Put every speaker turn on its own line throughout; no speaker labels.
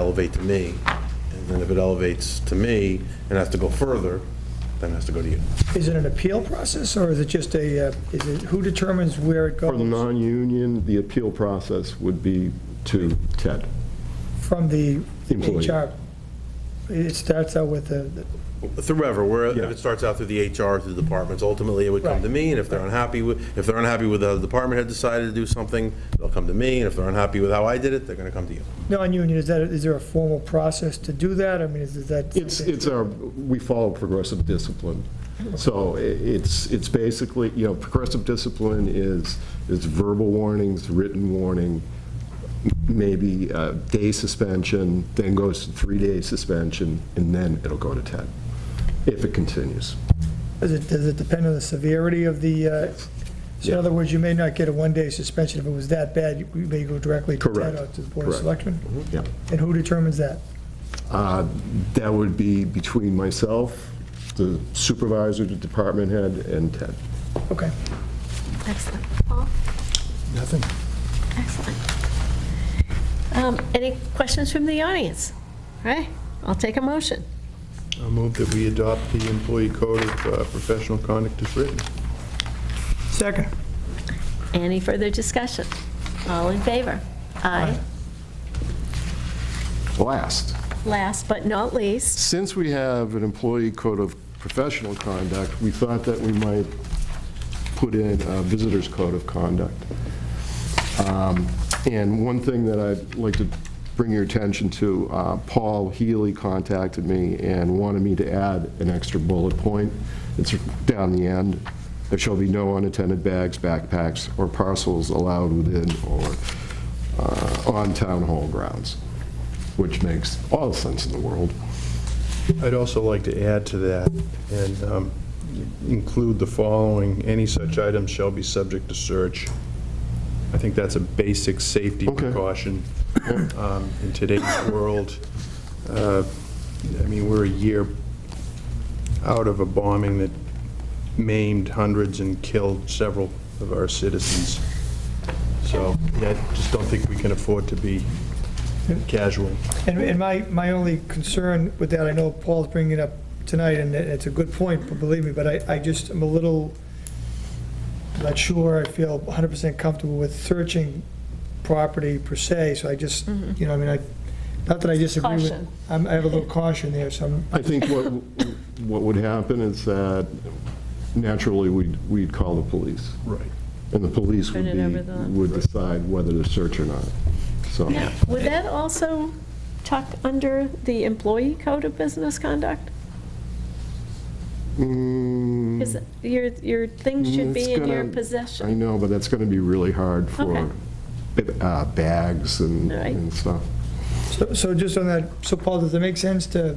elevate to me. And then if it elevates to me and has to go further, then it has to go to you.
Is it an appeal process, or is it just a, uh, is it, who determines where it
For the
goes?
non-union, the appeal process would be to Ted.
From the
Employee.
HR? It starts out with the, the-
Through wherever, where, if
Yeah.
it starts out through the HR, through the departments, ultimately it would come to
Right.
me, and if they're unhappy with, if they're unhappy with how the department had decided to do something, they'll come to me, and if they're unhappy with how I did it, they're gonna come to you.
non-union, is that, is there a formal process to do that? I mean, is is that?
It's, it's our, we follow progressive discipline. So i- it's, it's basically, you know, progressive discipline is, is verbal warnings, written warning, maybe a day suspension, then goes to three-day suspension, and then it'll go to Ted, if it continues.
Does it, does it depend on the severity of the, uh, so in
Yeah.
other words, you may not get a one-day suspension if it was that bad, you you may go directly to Ted
Correct.
or to the Board of
Correct. Mm-hmm.
Selectmen?
Yeah.
And who determines that?
Uh, That would be between myself, the supervisor, the department head, and Ted.
Okay.
Excellent. Paul?
Nothing.
Excellent. Um, Any questions from the audience? All right, I'll take a motion.
I'll move that we adopt the employee code of uh, professional conduct as written.
Second.
Any further discussion? All in favor? Aye.
Last.
Last but not least,
Since we have an employee code of professional conduct, we thought that we might put in a visitor's code of conduct. Um, And one thing that I'd like to bring your attention to, uh, Paul Healy contacted me and wanted me to add an extra bullet point. It's down the end. There shall be no unattended bags, backpacks, or parcels allowed within or uh, on town hall grounds, which makes all the sense in the world.
I'd also like to add to that and um, include the following, any such item shall be subject to search. I think that's a basic safety
Okay.
precaution um, in today's world. Uh, I mean, we're a year out of a bombing that maimed hundreds and killed several of our citizens. So, yeah, I just don't think we can afford to be casual.
And, and my, my only concern with that, I know Paul's bringing it up tonight, and it- it's a good point, but believe me, but I, I just am a little, not sure, I feel 100% comfortable with searching property per se, so I just, you know, I mean, I, not that I disagree with.
Caution.
I'm- I have a little caution there, so I'm,
I think what, what would happen is that naturally, we'd, we'd call the police.
Right.
And the police would
Turn it
be,
over the-
would decide whether to search or not, so.
now, would that also tuck under the employee code of business conduct?
Mm,
Because your, your things should
it's
be in your
gonna-
possession.
I know, but that's going to be really hard
Okay.
for uh, bags and
All right.
and stuff.
so- so just on that, so Paul, does it make sense to,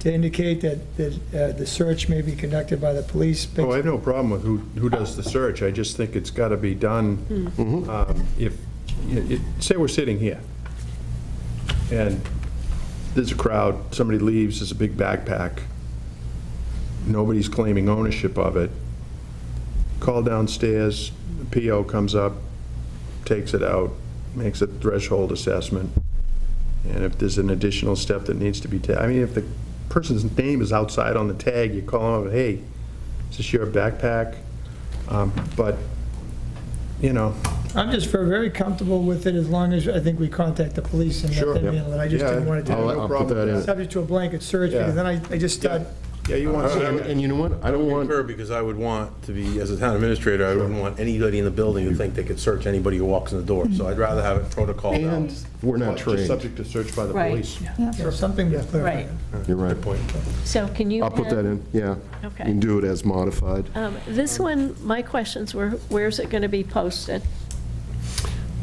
to indicate that, that uh, the search may be conducted by the police? based-
Oh, I have no problem with who, who does the search, I just think it's got to be done, um, if, it- it- say we're sitting here, and there's a crowd, somebody leaves, there's a big backpack, nobody's claiming ownership of it, call downstairs, the PO comes up, takes it out, makes a threshold assessment, and if there's an additional step that needs to be ta, I mean, if the person's name is outside on the tag, you call them, hey, is this your backpack? Um, But, you know,
I'm just very, very comfortable with it as long as I think we contact the police and
Sure.
let them handle it. I just didn't want it
Yeah,
I'll-
to
no
I'll put
problem
that
with
be
in.
subject to a blanket search, because then I, I just
yeah,
start,
yeah, you want
Uh, And
to
and you know what? I don't want,
Concur, because I would want to be, as a town administrator, I wouldn't want anybody in the building to think they could search anybody who walks in the door, so I'd rather have it protocol out.
and we're not
Just
trained.
subject to search by the
Right.
police.
so something was clear.
Right.
You're right.
Good point.
So can you?
I'll put
add-
that in, yeah.
Okay.
You can do it as modified.
Um, This one, my questions were, where's it going to be posted?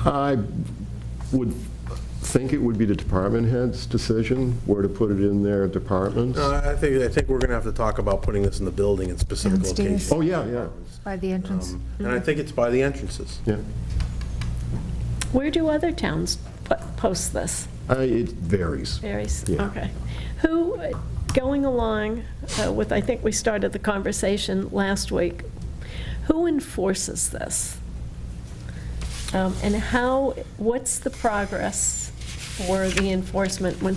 I would think it would be the department head's decision where to put it in their departments.
No, I I think, I think we're gonna have to talk about putting this in the building in specific
Downstairs.
locations.
Oh, yeah, yeah,
By the entrance.
And I think it's by the entrances.
yeah.
Where do other towns pu- post this?
I- It varies.
Varies,
Yeah.
okay. Who, going along uh, with, I think we started the conversation last week, who enforces this? Um, And how, what's the progress for the enforcement when